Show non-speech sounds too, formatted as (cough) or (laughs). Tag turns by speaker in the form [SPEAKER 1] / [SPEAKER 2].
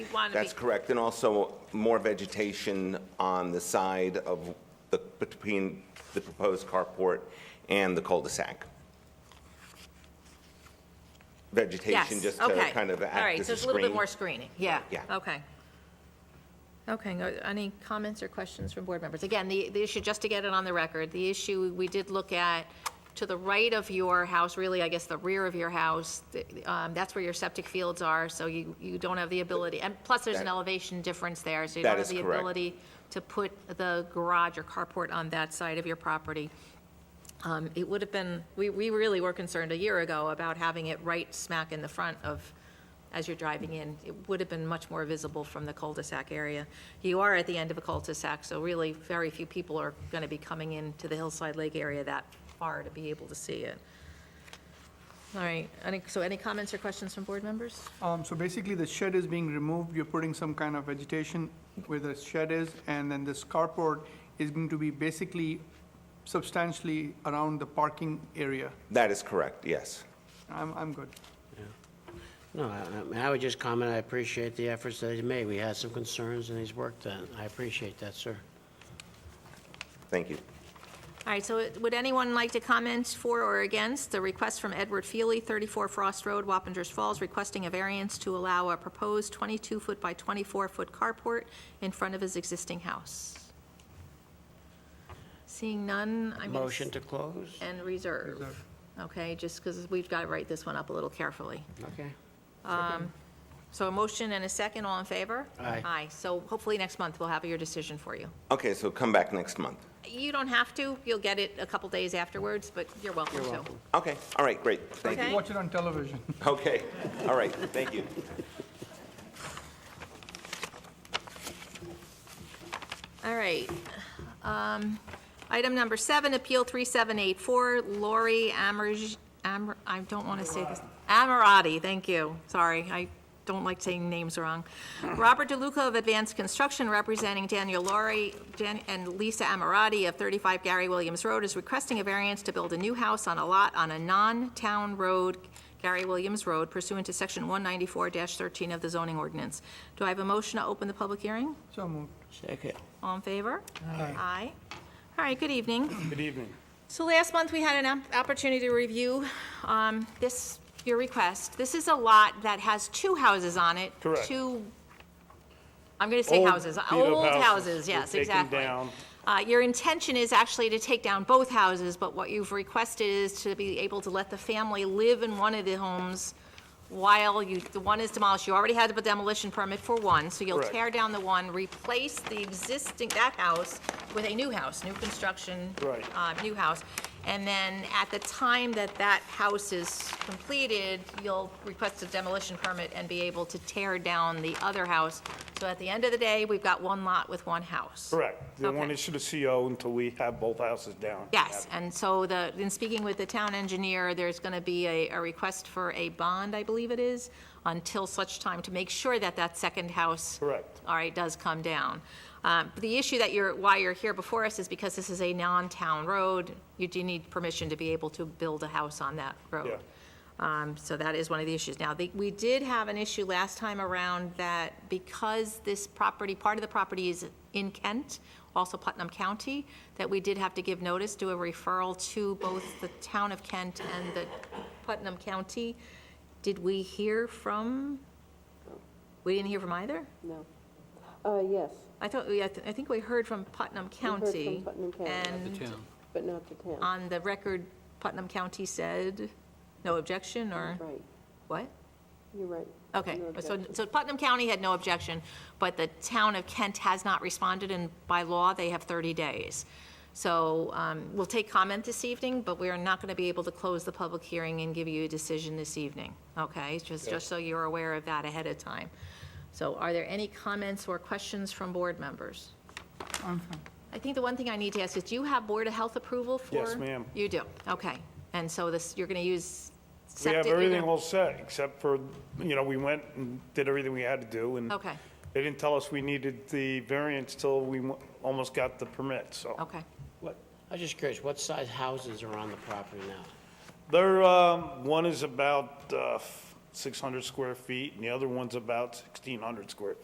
[SPEAKER 1] you'd want to be.
[SPEAKER 2] That's correct, and also more vegetation on the side of the, between the proposed carport and the cul-de-sac. Vegetation
[SPEAKER 1] Yes,
[SPEAKER 2] just to
[SPEAKER 1] okay.
[SPEAKER 2] kind of
[SPEAKER 1] All
[SPEAKER 2] act
[SPEAKER 1] right,
[SPEAKER 2] as
[SPEAKER 1] so
[SPEAKER 2] a
[SPEAKER 1] it's a little bit
[SPEAKER 2] screen.
[SPEAKER 1] more screening, yeah.
[SPEAKER 2] Yeah.
[SPEAKER 1] Okay. Okay, no- any comments or questions from board members? Again, the, the issue, just to get it on the record, the issue we did look at, to the right of your house, really, I guess, the rear of your house, th- um, that's where your septic fields are, so you, you don't have the ability, and plus there's an
[SPEAKER 2] That-
[SPEAKER 1] elevation difference there, so you
[SPEAKER 2] That
[SPEAKER 1] don't have
[SPEAKER 2] is
[SPEAKER 1] the
[SPEAKER 2] correct.
[SPEAKER 1] ability to put the garage or carport on that side of your property. Um, It would have been, we, we really were concerned a year ago about having it right smack in the front of, as you're driving in. It would have been much more visible from the cul-de-sac area. You are at the end of a cul-de-sac, so really, very few people are going to be coming into the Hillside Lake area that far to be able to see it. All right, any, so any comments or questions from board members?
[SPEAKER 3] Um, so basically, the shed is being removed, you're putting some kind of vegetation where the shed is, and then this carport is going to be basically substantially around the parking area.
[SPEAKER 2] That is correct, yes.
[SPEAKER 3] I'm, I'm good.
[SPEAKER 4] No, I- I mean, I would just comment, I appreciate the efforts that he's made. We had some concerns, and he's worked on it. I appreciate that, sir.
[SPEAKER 2] Thank you.
[SPEAKER 1] All right, so it- would anyone like to comment for or against the request from Edward Feely, 34 Frost Road, Wappingers Falls, requesting a variance to allow a proposed 22-foot by 24-foot carport in front of his existing house? Seeing none, I'm going
[SPEAKER 4] Motion
[SPEAKER 1] to...
[SPEAKER 4] to close?
[SPEAKER 1] And reserve.
[SPEAKER 3] Reserve.
[SPEAKER 1] Okay, just because we've got to write this one up a little carefully.
[SPEAKER 4] Okay.
[SPEAKER 1] So a motion and a second, all in favor?
[SPEAKER 4] Aye.
[SPEAKER 1] Aye, so hopefully next month we'll have your decision for you.
[SPEAKER 2] Okay, so come back next month.
[SPEAKER 1] You don't have to, you'll get it a couple days afterwards, but you're welcome to.
[SPEAKER 4] welcome.
[SPEAKER 2] Okay, all right, great, thank you.
[SPEAKER 1] Okay.
[SPEAKER 3] Watch it on television. (laughs)
[SPEAKER 2] Okay, all right, thank you.
[SPEAKER 1] All right. Um, Item number seven, Appeal 3784, Lori Amerj, Amr- I don't want to say this. Amirati, thank you. Sorry, I don't like saying names wrong. Robert DeLuca of Advanced Construction, representing Daniel Lori Dan- and Lisa Amirati of 35 Gary Williams Road, is requesting a variance to build a new house on a lot on a non-town road, Gary Williams Road, pursuant to Section 194-13 of the zoning ordinance. Do I have a motion to open the public hearing?
[SPEAKER 3] So moved.
[SPEAKER 4] Second.
[SPEAKER 1] All in favor? Aye. All right, good evening.
[SPEAKER 5] Good evening.
[SPEAKER 1] So last month, we had an op- opportunity to review um, this, your request. This is a lot that has two houses on it.
[SPEAKER 5] Correct.
[SPEAKER 1] Two, I'm going to say
[SPEAKER 5] Old
[SPEAKER 1] houses.
[SPEAKER 5] beat-up
[SPEAKER 1] Old
[SPEAKER 5] houses
[SPEAKER 1] houses,
[SPEAKER 5] were
[SPEAKER 1] yes,
[SPEAKER 5] taken
[SPEAKER 1] exactly.
[SPEAKER 5] down.
[SPEAKER 1] Uh, Your intention is actually to take down both houses, but what you've requested is to be able to let the family live in one of the homes while you, the one is demolished. You already had the demolition permit for one, so you'll
[SPEAKER 5] Correct.
[SPEAKER 1] tear down the one, replace the existing, that house with a new house, new construction.
[SPEAKER 5] Right.
[SPEAKER 1] uh, New house. And then at the time that that house is completed, you'll request a demolition permit and be able to tear down the other house. So at the end of the day, we've got one lot with one house.
[SPEAKER 5] Correct. They won't
[SPEAKER 1] Okay.
[SPEAKER 5] issue the CO until we have both houses down.
[SPEAKER 1] Yes, and so the, in speaking with the town engineer, there's going to be a, a request for a bond, I believe it is, until such time to make sure that that second house.
[SPEAKER 5] Correct.
[SPEAKER 1] All right, does come down. Um, The issue that you're, why you're here before us is because this is a non-town road. You do need permission to be able to build a house on that road. Um, So that is one of the issues. Now, the- we did have an issue last time around that because this property, part of the property is in Kent, also Putnam County, that we did have to give notice, do a referral to both the town of Kent and the Putnam County. Did we hear from? We didn't hear from either?
[SPEAKER 6] No. Uh, yes,
[SPEAKER 1] I thought, we- I th- I think we heard from Putnam
[SPEAKER 6] from
[SPEAKER 1] County.
[SPEAKER 6] Putnam County.
[SPEAKER 1] And
[SPEAKER 6] but not the town,
[SPEAKER 1] on the record, Putnam County said, no objection, or
[SPEAKER 6] right,
[SPEAKER 1] what?
[SPEAKER 6] you're right.
[SPEAKER 1] Okay,
[SPEAKER 6] No
[SPEAKER 1] so,
[SPEAKER 6] objection.
[SPEAKER 1] so Putnam County had no objection, but the town of Kent has not responded, and by law, they have 30 days. So um, we'll take comment this evening, but we are not going to be able to close the public hearing and give you a decision this evening, okay? Just, just so you're aware of that ahead of time. So are there any comments or questions from board members? I think the one thing I need to ask is, do you have Board of Health approval for?
[SPEAKER 5] Yes, ma'am.
[SPEAKER 1] You do, okay. And so this, you're going to use
[SPEAKER 5] We
[SPEAKER 1] septic?
[SPEAKER 5] have
[SPEAKER 1] you're gonna-
[SPEAKER 5] everything all set, except for, you know, we went and did everything we had to do, and
[SPEAKER 1] Okay.
[SPEAKER 5] they didn't tell us we needed the variance till we wa- almost got the permit, so.
[SPEAKER 1] Okay.
[SPEAKER 4] What, I was just curious, what size houses are on the property now?
[SPEAKER 5] There, um, one is about uh, 600 square feet, and the other one's about 1,600 square